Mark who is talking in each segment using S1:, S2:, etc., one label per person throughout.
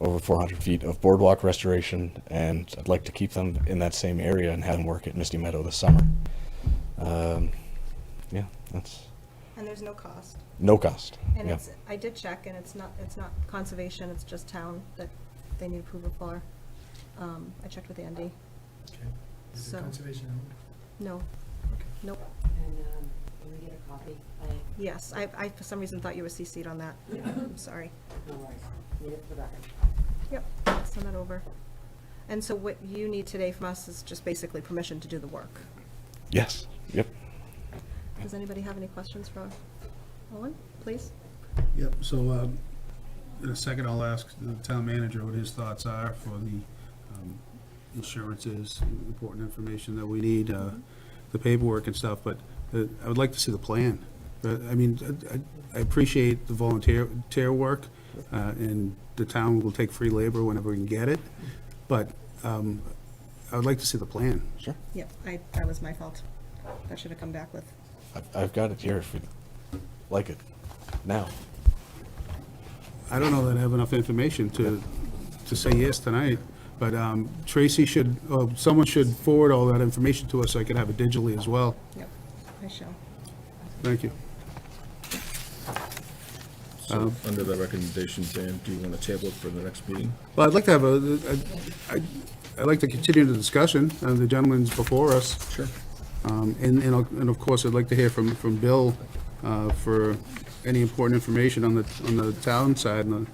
S1: over 400 feet of boardwalk restoration, and I'd like to keep them in that same area and have them work at Misty Meadow this summer. Um, yeah, that's
S2: And there's no cost.
S1: no cost.
S2: And
S1: yeah.
S2: it's, I did check, and it's not, it's not conservation, it's just town that they need approval for. Um, I checked with Andy.
S3: Okay. Is
S2: So-
S3: it conservation owned?
S2: No,
S3: Okay.
S2: nope.
S4: And, um, can we get a copy? I,
S2: Yes, I, I for some reason thought you were CC'd on that. I'm sorry.
S4: no worries, need it for the record.
S2: Yep, send that over. And so what you need today from us is just basically permission to do the work.
S1: Yes. Yep.
S2: Does anybody have any questions for Owen, please?
S5: Yep, so um, in a second, I'll ask the town manager what his thoughts are for the um, insurances, important information that we need, uh, the paperwork and stuff, but uh, I would like to see the plan. But, I mean, I- I I appreciate the volunteer, tear work, uh, and the town will take free labor whenever we can get it, but um, I would like to see the plan.
S1: Sure.
S2: Yep, I, that was my fault. That should have come back with.
S1: I've, I've got it here if you like it now.
S5: I don't know that I have enough information to, to say yes tonight, but um, Tracy should, oh, someone should forward all that information to us so I can have it digitally as well.
S2: Yep, I shall.
S5: Thank you.
S6: So, under the recommendation, Dan, do you want to table it for the next meeting?
S5: Well, I'd like to have a, I- I- I'd like to continue the discussion, uh, the gentleman's before us.
S6: Sure.
S5: Um, And, and of- and of course, I'd like to hear from, from Bill uh, for any important information on the, on the town side, and the-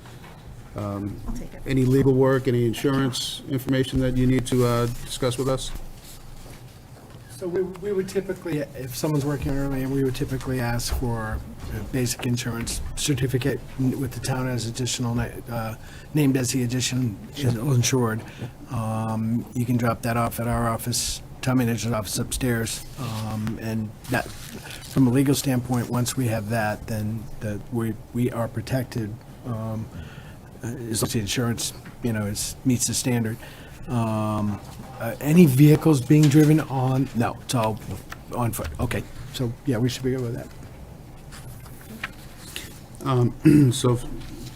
S2: I'll take it.
S5: any legal work, any insurance information that you need to uh, discuss with us.
S3: So we, we would typically, if someone's working early, we would typically ask for a basic insurance certificate with the town as additional, na- uh, named as the addition is insured. Um, You can drop that off at our office, town manager's office upstairs. Um, And that, from a legal standpoint, once we have that, then that we, we are protected. um, as long as the insurance, you know, is, meets the standard. Um, uh, Any vehicles being driven on, no, it's all on foot, okay. So, yeah, we should be good with that.
S5: So if-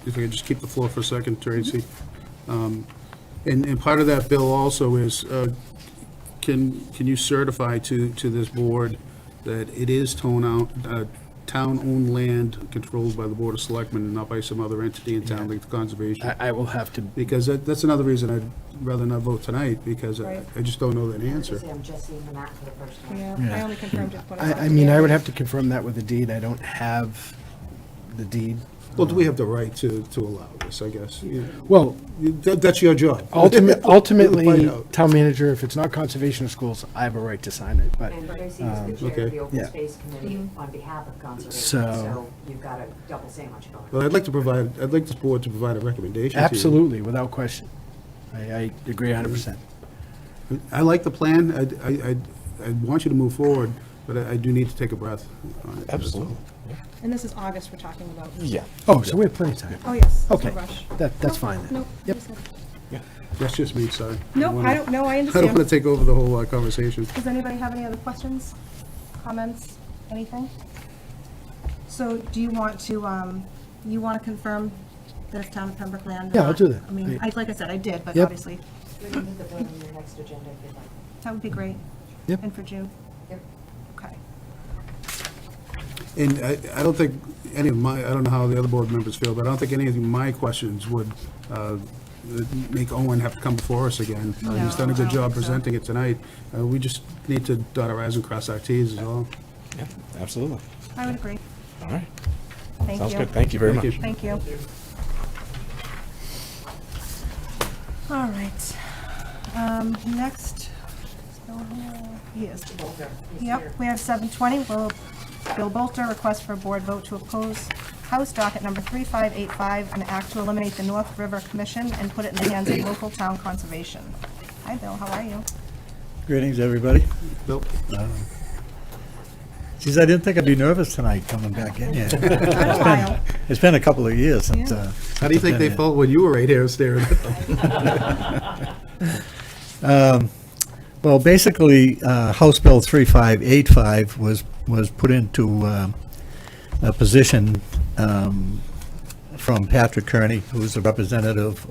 S5: if I could just keep the floor for a second, Tracy. Um, And, and part of that bill also is, uh, can, can you certify to, to this board that it is town out, uh, town-owned land controlled by the Board of Selectmen and not by some other entity in town like the Conservation?
S3: I, I will have to,
S5: Because that, that's another reason I'd rather not vote tonight, because I I just don't know that answer.
S4: Say I'm just seeing the map for the first time.
S2: Yeah, I only confirmed it when I.
S3: I, I mean, I would have to confirm that with the deed, I don't have the deed.
S5: Well, do we have the right to, to allow this, I guess? Yeah.
S3: Well,
S5: That, that's your job.
S3: ultimate,
S5: Find
S3: ultimately,
S5: out.
S3: town manager, if it's not conservation of schools, I have a right to sign it, but,
S4: And Tracy is the chair
S5: okay.
S4: of the Open
S3: Yeah.
S4: Space Committee on behalf of Conservation,
S3: So-
S4: so you've got a double sandwich going.
S5: Well, I'd like to provide, I'd like this board to provide a recommendation to you.
S3: absolutely, without question. I, I agree hundred percent.
S5: I like the plan, I, I, I- I want you to move forward, but I I do need to take a breath. on it.
S1: Absolutely.
S2: And this is August we're talking about.
S1: Yeah.
S3: Oh, so we have plenty of time.
S2: Oh, yes. there's no
S3: Okay,
S2: rush.
S3: that, that's
S2: No,
S3: fine then.
S2: No.
S3: Yep.
S2: there's no-
S5: That's just me, sorry.
S2: No, I don't, no, I
S5: I don't want
S2: understand.
S5: to take over the whole uh, conversation.
S2: Does anybody have any other questions, comments, anything? So do you want to, um, you want to confirm that it's town of Pembroke land? or
S3: Yeah, I'll
S2: not?
S3: do that.
S2: I mean,
S3: I-
S2: I, like I said, I did, but
S3: Yep.
S2: obviously,
S4: We can put the vote on your next agenda if you'd like.
S2: that would be great.
S3: Yep.
S2: And for June,
S4: Yep.
S2: okay.
S5: And I, I don't think any of my, I don't know how the other board members feel, but I don't think any of my questions would uh, make Owen have to come before us again. Uh, He's done
S2: No,
S5: a
S2: I don't
S5: good job
S2: think so.
S5: presenting it tonight. Uh, We just need to dot our i's and cross our t's is all.
S1: Yeah. Absolutely.
S2: I would agree.
S1: All right.
S2: Thank you.
S1: Sounds good. Thank you very
S5: Thank
S1: much.
S5: you.
S2: Thank you. All right. Um, Next, so, yes.
S4: Walter, he's here.
S2: Yep, we have seven twenty, Will, Bill Bolter, request for a board vote to oppose House docket number three five eight five, an act to eliminate the North River Commission and put it in the hands of local town conservation. Hi, Bill, how are you?
S7: Greetings, everybody. Uh,
S5: Bill?
S7: Geez, I didn't think I'd be nervous tonight coming back in here.
S2: Been a while.
S7: It's been a couple of years since.
S2: Yeah.
S7: uh,
S5: How do you think they felt when you were right here staring at them?
S7: Well, basically, uh, House Bill 3585 was, was put into um, a position um, from Patrick Kearney, who's a representative